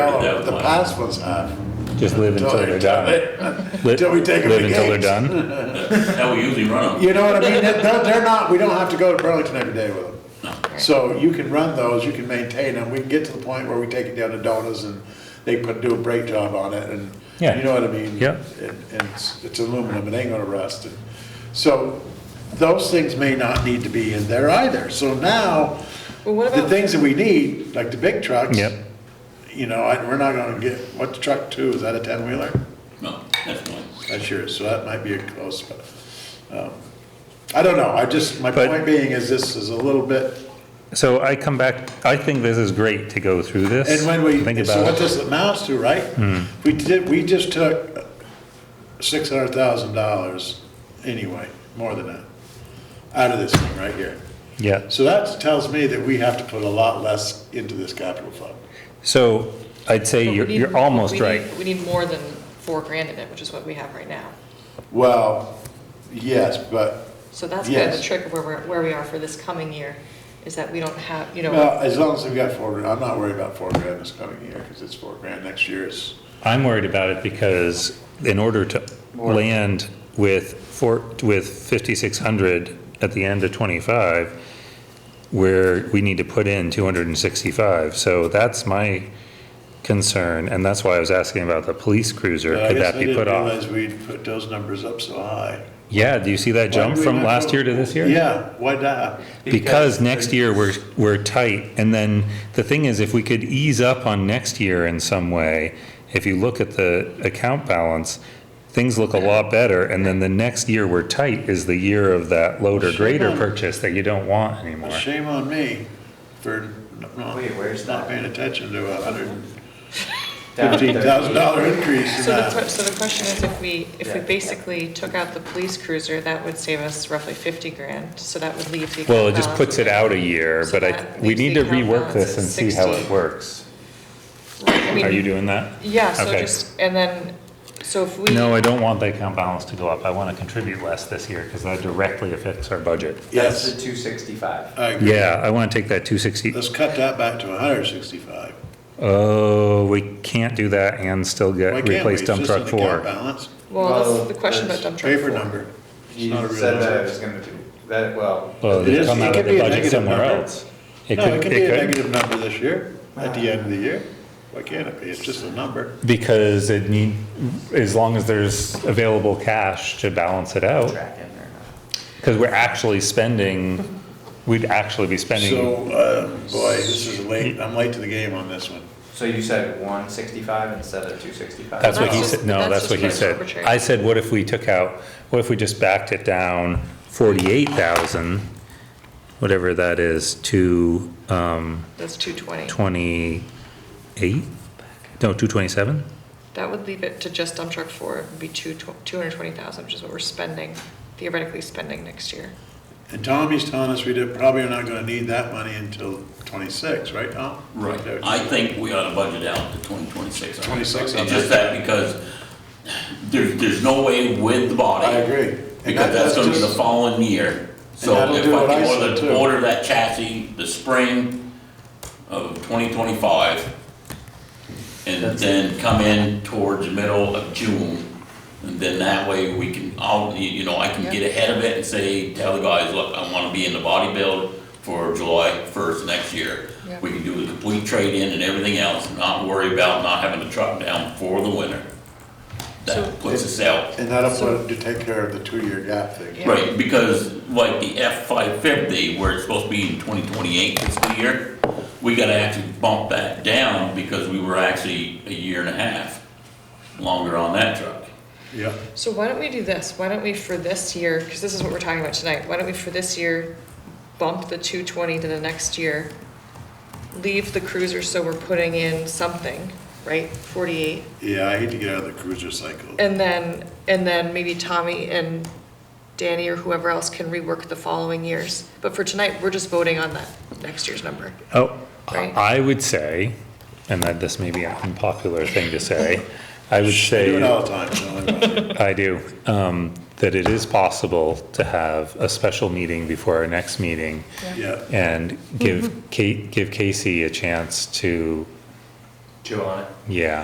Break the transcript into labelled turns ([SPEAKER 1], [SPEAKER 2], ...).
[SPEAKER 1] That
[SPEAKER 2] No,
[SPEAKER 1] was
[SPEAKER 2] Oh, the
[SPEAKER 1] mine.
[SPEAKER 2] past ones have.
[SPEAKER 3] Just live until they're done. Li-
[SPEAKER 2] Till we take them
[SPEAKER 3] Live
[SPEAKER 2] to
[SPEAKER 3] until they're
[SPEAKER 2] games.
[SPEAKER 3] done?
[SPEAKER 1] How we usually run them.
[SPEAKER 2] You know what I mean? They're, they're not, we don't have to go to Burlington every day with them. So you can run those, you can maintain them, we can get to the point where we take it down to Donuts and they put, do a brake job on it and,
[SPEAKER 3] Yeah.
[SPEAKER 2] you know what I mean?
[SPEAKER 3] Yep.
[SPEAKER 2] And, and it's, it's aluminum, it ain't gonna rust. And So those things may not need to be in there either. So now,
[SPEAKER 4] Well, what
[SPEAKER 2] the
[SPEAKER 4] about-
[SPEAKER 2] things that we need, like the big trucks.
[SPEAKER 3] Yep.
[SPEAKER 2] You know, I, we're not gonna get, what's truck two, is that a ten wheeler?
[SPEAKER 1] No, that's mine.
[SPEAKER 2] That's yours, so that might be a close, but, um, I don't know, I just, my
[SPEAKER 3] But-
[SPEAKER 2] point being is this is a little bit,
[SPEAKER 3] So I come back, I think this is great to go through this.
[SPEAKER 2] and when
[SPEAKER 3] Think
[SPEAKER 2] we, so
[SPEAKER 3] about
[SPEAKER 2] what
[SPEAKER 3] it. Hmm.
[SPEAKER 2] this amounts to, right? We did, we just took six hundred thousand dollars anyway, more than that, out of this thing right here.
[SPEAKER 3] Yeah,
[SPEAKER 2] So that tells me that we have to put a lot less into this capital fund.
[SPEAKER 3] so I'd say
[SPEAKER 4] But we
[SPEAKER 3] you're,
[SPEAKER 4] need-
[SPEAKER 3] you're almost
[SPEAKER 4] we need-
[SPEAKER 3] right.
[SPEAKER 4] We need more than four grand in it, which is what we have right now.
[SPEAKER 2] Well, yes, but,
[SPEAKER 4] So that's kind of the
[SPEAKER 2] Yes.
[SPEAKER 4] trick of where we're, where we are for this coming year, is that we don't have, you know,
[SPEAKER 2] well, as long as we've got four, grand- I'm not worried about four grand this coming year, cause it's four grand, next year is
[SPEAKER 3] I'm worried about it because in order to land with four, with 5,600 at the end of '25, where we need to put in 265. So that's my concern, and that's why I was asking about the police cruiser.
[SPEAKER 2] Yeah, Uh, I
[SPEAKER 3] Could
[SPEAKER 2] guess
[SPEAKER 3] that
[SPEAKER 2] I
[SPEAKER 3] be put
[SPEAKER 2] didn't
[SPEAKER 3] off?
[SPEAKER 2] realize we'd put those numbers up so high.
[SPEAKER 3] Yeah, do you see that jump
[SPEAKER 2] Why did
[SPEAKER 3] from
[SPEAKER 2] we not
[SPEAKER 3] last
[SPEAKER 2] go-
[SPEAKER 3] year to this year?
[SPEAKER 2] Yeah, why not?
[SPEAKER 3] Because next year, we're, we're tight, and then the thing is, if we could ease up on next year in some way, if you look at the account balance, things look a lot better, and then the next year we're tight is the year of that loader
[SPEAKER 2] Sure.
[SPEAKER 3] grader purchase that you don't want anymore.
[SPEAKER 2] Shame on me for not-
[SPEAKER 5] Wait, where's
[SPEAKER 2] not
[SPEAKER 5] that?
[SPEAKER 2] paying attention to a hundred and
[SPEAKER 5] Down
[SPEAKER 2] fifteen thousand dollar increase in
[SPEAKER 4] so the, que-
[SPEAKER 2] that.
[SPEAKER 4] so the question is if we, if we
[SPEAKER 5] Yeah.
[SPEAKER 4] basically took out the police cruiser, that would save us roughly fifty grand, so that would leave the.
[SPEAKER 3] Well, it
[SPEAKER 4] account
[SPEAKER 3] just
[SPEAKER 4] balance-
[SPEAKER 3] puts it out a year,
[SPEAKER 4] So
[SPEAKER 3] but I,
[SPEAKER 4] that
[SPEAKER 3] we
[SPEAKER 4] leaves
[SPEAKER 3] need
[SPEAKER 4] the
[SPEAKER 3] to
[SPEAKER 4] account
[SPEAKER 3] rework
[SPEAKER 4] balance
[SPEAKER 3] this
[SPEAKER 4] at
[SPEAKER 3] and see how
[SPEAKER 4] 60.
[SPEAKER 3] it works.
[SPEAKER 4] Right, I mean,
[SPEAKER 3] Are you doing that?
[SPEAKER 4] Yeah, so
[SPEAKER 3] Okay.
[SPEAKER 4] just, and then, so if we.
[SPEAKER 3] No, I don't want the account balance to go up, I wanna contribute less this year, because that directly affects our budget.
[SPEAKER 5] That's the
[SPEAKER 2] Yes,
[SPEAKER 5] two sixty-five.
[SPEAKER 2] I agree.
[SPEAKER 3] Yeah, I wanna take that two sixty,
[SPEAKER 2] Let's cut that back to hundred and sixty-five.
[SPEAKER 3] Oh, we can't do that and still
[SPEAKER 2] Why
[SPEAKER 3] get,
[SPEAKER 2] can't we?
[SPEAKER 3] replace
[SPEAKER 2] It's
[SPEAKER 3] dump
[SPEAKER 2] just
[SPEAKER 3] truck
[SPEAKER 2] an account
[SPEAKER 3] four.
[SPEAKER 2] balance,
[SPEAKER 4] Well,
[SPEAKER 5] Well,
[SPEAKER 4] that's the question about dump truck.
[SPEAKER 2] Paper
[SPEAKER 4] four.
[SPEAKER 2] number. It's
[SPEAKER 5] You
[SPEAKER 2] not a real
[SPEAKER 5] said that
[SPEAKER 2] number.
[SPEAKER 5] it was gonna do, that, well,
[SPEAKER 3] Well,
[SPEAKER 2] It
[SPEAKER 3] Oh, they
[SPEAKER 2] is-
[SPEAKER 3] come
[SPEAKER 2] it
[SPEAKER 3] out
[SPEAKER 2] could
[SPEAKER 3] of
[SPEAKER 2] be
[SPEAKER 3] the
[SPEAKER 2] a
[SPEAKER 3] budget
[SPEAKER 2] negative
[SPEAKER 3] somewhere
[SPEAKER 2] number.
[SPEAKER 3] else.
[SPEAKER 2] No, it
[SPEAKER 3] could-
[SPEAKER 2] can be a
[SPEAKER 3] could-
[SPEAKER 2] negative number this year, at the end of the year. Why can't it be? It's just a number.
[SPEAKER 3] Because it need, as long as there's available cash to balance it out,
[SPEAKER 5] track in there.
[SPEAKER 3] because we're actually spending, we'd actually be spending,
[SPEAKER 2] So, uh, boy, this is late, I'm late to the game on this one.
[SPEAKER 5] So you said one sixty-five instead of two sixty-five?
[SPEAKER 3] that's what he
[SPEAKER 4] That's
[SPEAKER 3] said,
[SPEAKER 4] just-
[SPEAKER 3] no,
[SPEAKER 4] that's
[SPEAKER 3] that's
[SPEAKER 4] just
[SPEAKER 3] what he
[SPEAKER 4] what's
[SPEAKER 3] said.
[SPEAKER 4] arbitrary.
[SPEAKER 3] I said, what if we took out, what if we just backed it down forty-eight thousand, whatever that is, to, um,
[SPEAKER 4] That's two twenty.
[SPEAKER 3] 28, no, 227?
[SPEAKER 4] That would leave it to just dump truck four, it would be two, two hundred twenty thousand, which is what we're spending, theoretically spending next year.
[SPEAKER 2] And Tommy's telling us we did, probably are not gonna need that money until twenty-six, right, Tom?
[SPEAKER 1] Right. I think we ought to budget out to 2026.
[SPEAKER 2] 26, I'm
[SPEAKER 1] It's just that because there's, there's no way with the body.
[SPEAKER 2] I agree. And that-
[SPEAKER 1] Because that's gonna be the
[SPEAKER 2] just-
[SPEAKER 1] following year. So
[SPEAKER 2] that'll
[SPEAKER 1] if
[SPEAKER 2] do
[SPEAKER 1] I
[SPEAKER 2] what I
[SPEAKER 1] can
[SPEAKER 2] said, too.
[SPEAKER 1] order, order that chassis the spring of 2025 and then come in towards the middle of June, and then that way we can, I'll, you you know, I can get ahead of it and say, tell the guys, look, I wanna be in the body build for July first next year.
[SPEAKER 4] Yeah.
[SPEAKER 1] We can do the complete trade-in and everything else, and not worry about not having the truck down for the winter.
[SPEAKER 4] So-
[SPEAKER 1] That puts us out.
[SPEAKER 2] And that'll put, to take care of the two-year gap thing.
[SPEAKER 4] Yeah.
[SPEAKER 1] Right, because like the F five fifty, where it's supposed to be in twenty twenty-eight fiscal year, we gotta actually bump that down because we were actually a year and a half longer on that truck.
[SPEAKER 2] Yeah.
[SPEAKER 4] So why don't we do this? Why don't we for this year, because this is what we're talking about tonight, why don't we for this year bump the two twenty to the next year? Leave the cruiser, so we're putting in something, right, forty-eight?
[SPEAKER 2] Yeah, I hate to get out of the cruiser cycle.
[SPEAKER 4] And then, and then maybe Tommy and Danny or whoever else can rework the following years. But for tonight, we're just voting on that next year's number.
[SPEAKER 3] Oh,
[SPEAKER 4] Right.
[SPEAKER 3] I would say, and that this may be an unpopular thing to say,
[SPEAKER 2] I
[SPEAKER 3] I would
[SPEAKER 2] do it
[SPEAKER 3] say,
[SPEAKER 2] all the time, don't worry about it.
[SPEAKER 3] I do, um, that it is possible to have a special meeting before our next meeting
[SPEAKER 2] yeah.
[SPEAKER 4] Mm-hmm.
[SPEAKER 3] and give Kate, give Casey a chance to
[SPEAKER 6] Two on it.
[SPEAKER 5] yeah.